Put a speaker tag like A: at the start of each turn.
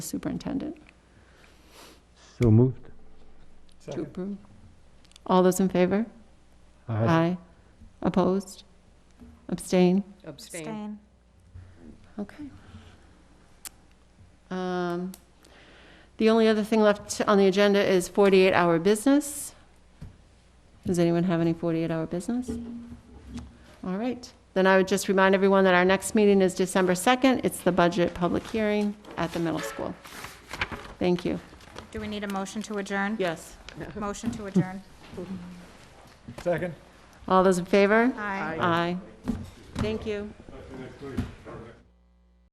A: superintendent
B: So moved.
A: to approve. All those in favor? Aye. Opposed? Abstain?
C: Abstain.
A: Okay. Um, The only other thing left on the agenda is 48-hour business. Does anyone have any 48-hour business? All right. Then I would just remind everyone that our next meeting is December 2nd. It's the budget public hearing at the middle school. Thank you.
C: Do we need a motion to adjourn?
A: Yes.
C: Motion to adjourn.
D: Second.
A: All those in favor?
C: Aye.
A: Aye. Thank you.